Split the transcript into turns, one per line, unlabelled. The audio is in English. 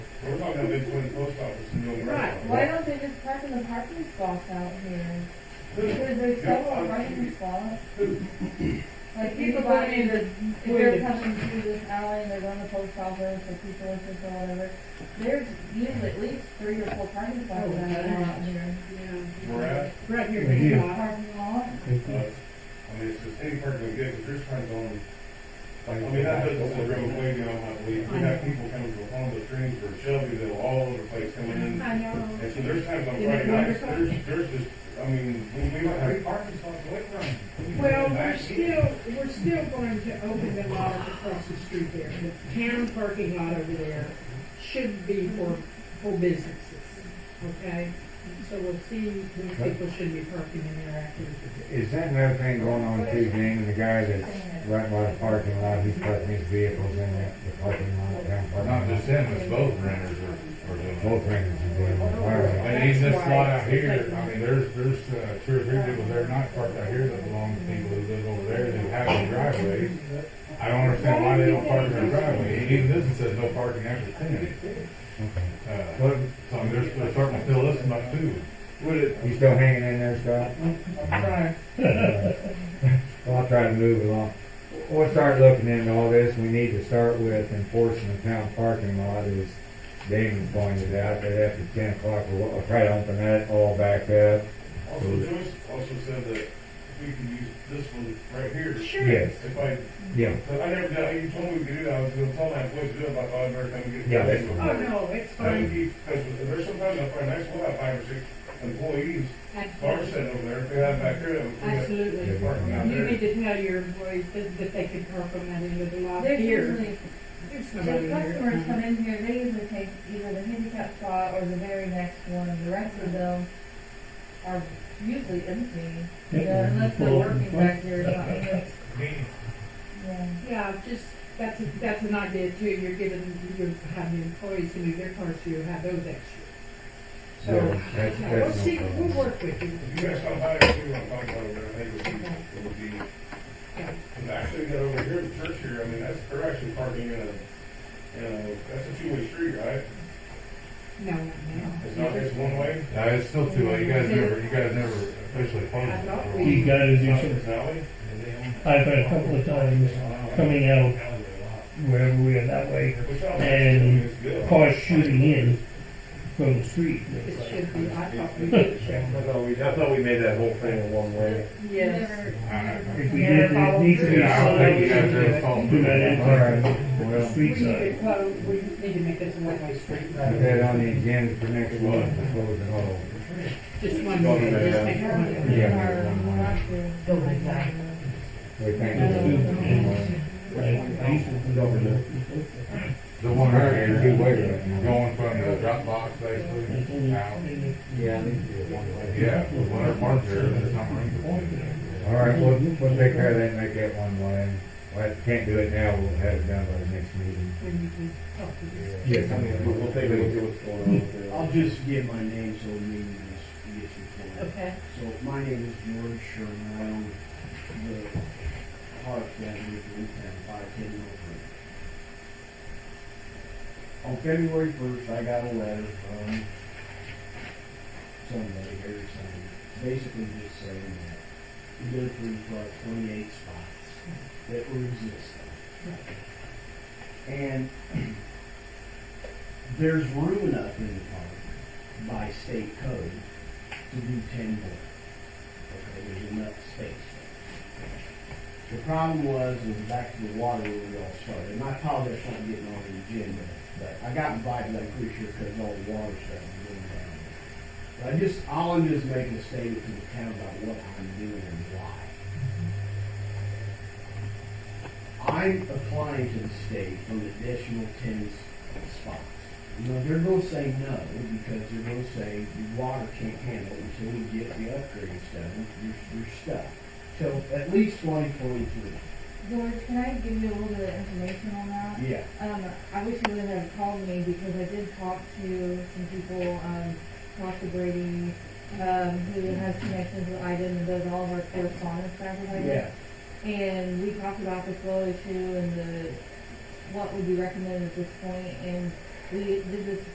We're not gonna be putting post office in the
Right, why don't they just park in the parking spots out here? Because there's several parking spots. Like people going in the, if they're coming through this alley and they're going to post office or people or whatever, there's usually at least three or four parking spots
Oh,
that are out here.
We're at,
Right here,
Right here.
Green Rock.
Parking
uh, I
lot,
mean, it's the same part we get, but there's times on, I mean, that doesn't
Like,
road way down, I believe, we have people coming from Honda Streams or Shelby that are all over the place coming in.
I know.
And so there's times on Friday nights, there's, there's just, I mean, we we might have parking spots away from.
Well, we're still, we're still going to open the lot up across the street there. The town parking lot over there should be for, for businesses, okay? So we'll see when people should be parking in there after.
Is that another thing going on too, Jane, the guy that's right by the parking lot, he's parking his vehicles in that, the parking lot, down
Or
parking lot?
not just him, it's both renters are, are doing it.
Both rings are doing it, all right.
And even this lot out here, I mean, there's, there's, uh, two or three people there not parked out here that belong to people who live over there who have their driveways. I don't understand why they don't park in their driveway, even this one says no parking after ten. Uh,
Well,
so I mean, there's, they're starting to fill this one up too.
Would it,
You still hanging in there, Scott?
I'm trying,
Well, I'll try to move along. We'll start looking into all this, we need to start with enforcing the town parking lot, as Damon pointed out, that after ten o'clock, we'll, we'll try to open that all back up.
also Joyce also said that we can use this one right here.
Yes,
If I
yeah,
But I never, did- you told me to do that, I was gonna tell my employees to do it, but I thought I'd never come get.
Yeah, that's
Oh, no, it's
I think
fine.
you, because there's sometimes I find, that's why I have five or six employees, cars sitting over there, if they have back there, we have
Absolutely.
parking out
You
there.
need to tell your employees that, that they can park on that end of the lot
there's
here.
usually
There's
If
nobody
customers
there.
come in here, they usually take either the handicap spot or the very next one, the rest of them are usually empty. You know, unless they're working back here, it's not, yeah.
Yeah, just, that's, a- that's an idea too, you're giving, you're having employees to move their cars, so you have those extra. So,
Yeah, that's-
yeah, we'll
that's no
see,
problem.
we'll work with you.
If you guys come by, if you want to talk about it, I think it would be, it would be,
Yeah.
and actually, get over here, the church here, I mean, that's, they're actually parking in a, in a, that's a two-way street, right?
No, no.
It's not just one way?
Yeah, it's still too late, you guys never, you guys never officially closed it.
I
You gotta
It's
do
not
some,
this alley?
I've had a couple of times coming out wherever we are that way,
Which I don't
And
think it's good.
cars shooting in from the street.
It should be, I thought we did.
I thought we made that whole thing a one-way.
Yes.
If we did, it needs to be
Yeah, I don't think you guys
solid.
ever followed
Do
through
that
that.
all
impact
right.
on the
Well,
We need
street
to,
side.
well, we need to make this a one-way street.
put that on the agenda for next month, to close it all.
Just one way, just make it one way.
We
Yeah.
thank you.
Right, I used to put over there.
The one right here,
Good way to go.
going from the drop box basically out.
Yeah, I need to do it one way.
Yeah, the one that parked there, there's not room for one.
All right, we'll, we'll take care of that and make that one way. Well, if we can't do it now, we'll have it done by the next meeting.
When you can talk to this.
Yes, I
We'll we'll take a look at
mean,
what's going on with it.
I'll just give my name so the meeting is, gets recorded.
Okay.
So my name is George Sherman, I own the park that we in town, five ten North Road. On February first, I got a letter from somebody, Harry somebody, basically just saying that we did approve for our twenty-eight spots that were existing. And there's room enough in the park by state code to do ten more. Okay, there's enough space. The problem was, was back to the water where we all started, and I apologize for not getting on the agenda, but I got invited, I'm pretty sure, because all the water stuff was going down. But I just, all I'm just making a statement to the town about what I'm doing and why. I'm applying to the state for an additional ten s- spots. You know, they're gonna say no, because they're gonna say the water can't handle it until we get the upgrades done, you're, you're stuck. Till at least twenty twenty-three.
George, can I give you a little bit of information on that?
Yeah.
Um, I wish you would have called me because I did talk to some people, um, talk to Brady, um, who has connections with Iden and does all of our correspondence back with Iden.
Yeah.
And we talked about the flow issue and the, what would be recommended at this point, and we did this